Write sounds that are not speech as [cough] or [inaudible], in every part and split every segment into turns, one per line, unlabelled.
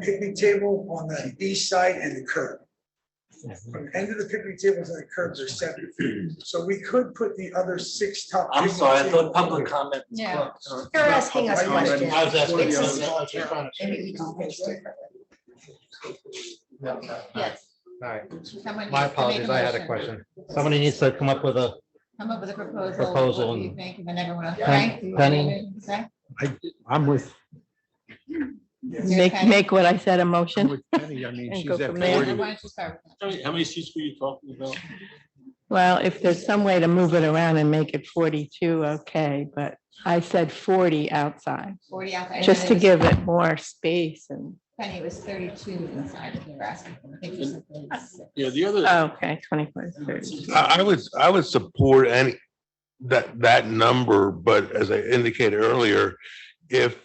picnic table on the east side and the curb. From the end of the picnic table to the curb, there's seven feet, so we could put the other six top.
I'm sorry, I thought
picnic tables
public
here.
comment. was
Yeah.
closed.
You're asking us
I was
questions.
I was asking.
It's
you, I
just-
was actually trying to-
Maybe we don't reach differently.
No, no, no.
Yes.
All right,
Someone
my
needs to make
apologies, I had a
motion.
question. Somebody needs to come up with a,
Come up with a proposal.
Proposal
What do you
and-
think, and then everyone else,
Pen-
right?
Penny?
Okay.
I, I'm with,
You're
Make,
okay.
make what I said a
I'm
motion.
with Penny. I mean,
And
she's
go
at
from there.
Why
40.
don't you start with
How many- How many seats were you talking about?
Well, if there's some way to move it around and make it 42, okay, but I said 40 outside,
that? Forty outside. and
just to
then it was-
give it more space and,
Penny, it was thirty-two inside, if you were asking. for. I think you said 36.
Yeah, the other.
oh, okay, 24, is 30.
I, I would, I would support any, that, that number, but as I indicated earlier, if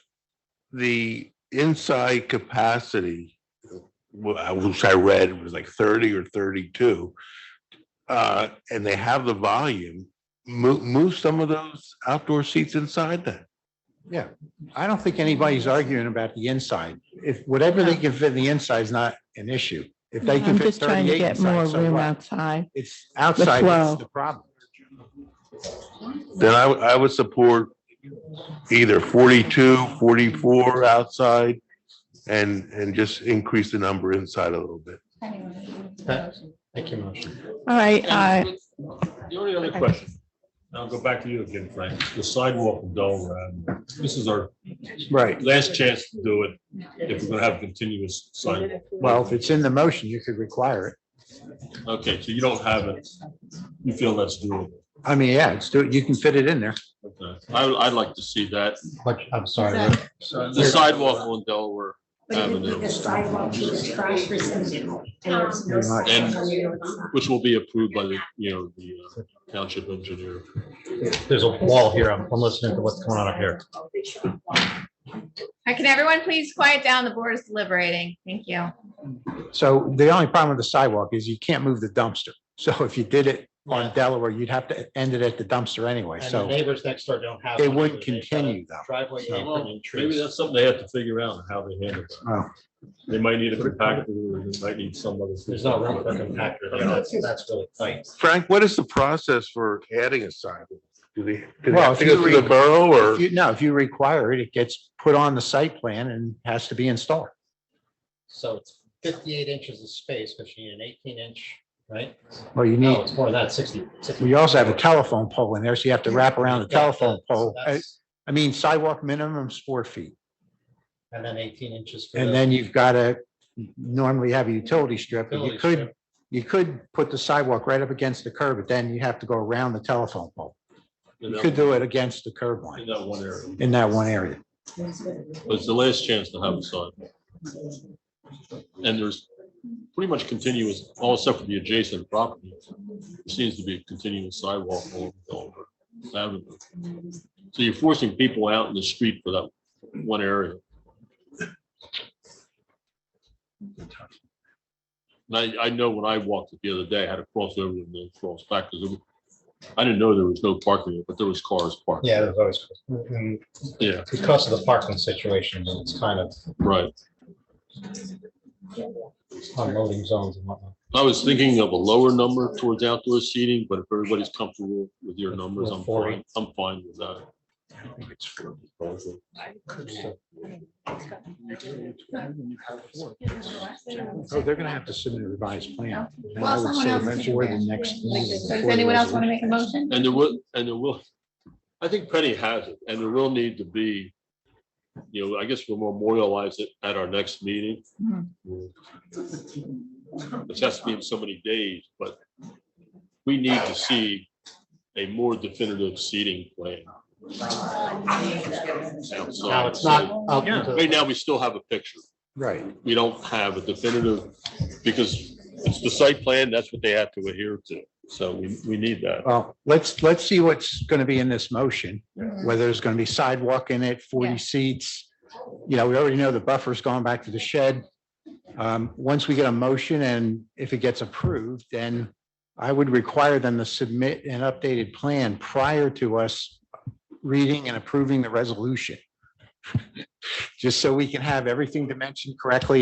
the inside capacity, wh- I wish I read was like thirty or thirty-two, uh, and they have the volume, move, move some of those outdoor seats inside then.
I don't think anybody's arguing about the inside. If whatever they can fit in the inside is not an issue. If they can
I'm
fit
just trying to
thirty-eight
get more
inside, so
room
what?
outside.
It's outside,
flow.
that's the problem.
Then I, would- I would support either 42, 44 outside and, and just increase the number inside a little bit.
Penny, what do you think of the
Pen-
motion?
Make your motion.
All right, I,
And The only other
I-
question,
I'll go back to you again, Frank. The sidewalk in Dover Avenue. This is our
Right.
last chance to do it if we're gonna have continuous sidewalk.
Well, if it's in the motion, you could require it.
Okay, so you don't have it. You feel that's doable.
I mean, yeah, it's, do- you can fit it in there.
Okay. I, would- I'd like to see that.
What, I'm sorry.
Is
what-
The sidewalk on Delaware
But if you
Avenue,
leave the sidewalk to the trash receptacle and
Um,
there's no
Very much.
sidewalk.
which will be approved by the, you know, the uh, township engineer.
There's a wall here. I'm I'm listening to what's going on up here.
uh, Can everyone please quiet down? The board is deliberating. Thank
Oh,
you.
So the only problem with the sidewalk is you can't move the dumpster. So if you did it on Delaware, you'd have to end it at the dumpster anyway.
And the
So
neighbors next door don't have.
They
one,
would
so they've got a
continue, though.
Driveway
So-
apron and
Maybe
trees.
that's something they have to figure out how they handle that.
oh,
They might need a compactor, or they might need some other.
There's no room for a compactor. there. That's, that's really tight.
Frank, what is the process for adding a sidewalk? Do they, do they
Well,
have
if
to
you
go through
re-
the borough
If
or?
you, no, if you require it, it gets put on the site plan and has to be installed.
So it's fifty-eight inches of space, because you need an eighteen inch, right?
Well, you
No,
need,
it's more than that, 60.
we also have a telephone pole in there, so you have to wrap around the
Yeah,
telephone
so
pole. I,
that's-
I mean, sidewalk minimum is four feet.
And then eighteen inches. for
And
the
then you've got to normally have a utility strip. but You
utility
could,
strip.
you could put the sidewalk right up against the curb, but then you have to go around the telephone pole.
In
You
that-
could do it against the curb line
In that one area.
in that one area.
But It's the last chance to have a sidewalk. And there's pretty much continuous, all except for the adjacent property, there seems to be a continuous sidewalk along Delaware Avenue. So you're forcing people out in the street for that one area. And I, I know when I walked it the other day, I had to cross over and then cross back because I didn't know there was no parking, there, but there was cars parked.
Yeah, there's always, and
Yeah,
because of the parking situation, it's kind of
right.
unloading zones and whatnot.
I was thinking of a lower number towards outdoor seating, but if everybody's comfortable with your numbers, I'm fine, I'm fine with that.
So they're going to have to submit a revised plan. And I
Well,
would
someone
say
else can
before
do
the
that.
next
Like,
meeting,
so Does
before the
anyone else want to
resolution.
make a motion?
And there will, and there will, I think Penny has it, and there will need to be, you know, I guess we'll memorialize it at our next meeting.
Mhm.
It has to be in so many days, but we need to see a more definitive seating plan.
Now, it's not up to the-
Right now, we still have a picture.
Right.
we don't have a definitive, because it's the site plan, that's what they have to adhere to. So we, we need that.
Well, let's, let's see what's going to be in this motion,
Mhm.
whether there's going to be sidewalk in it, 40
Yeah.
seats. You know, we already know the buffer's going back to the shed. Um, Once we get a motion and if it gets approved, then I would require them to submit an updated plan prior to us reading [laughs] and approving the resolution. Just so we can have everything dimensioned correctly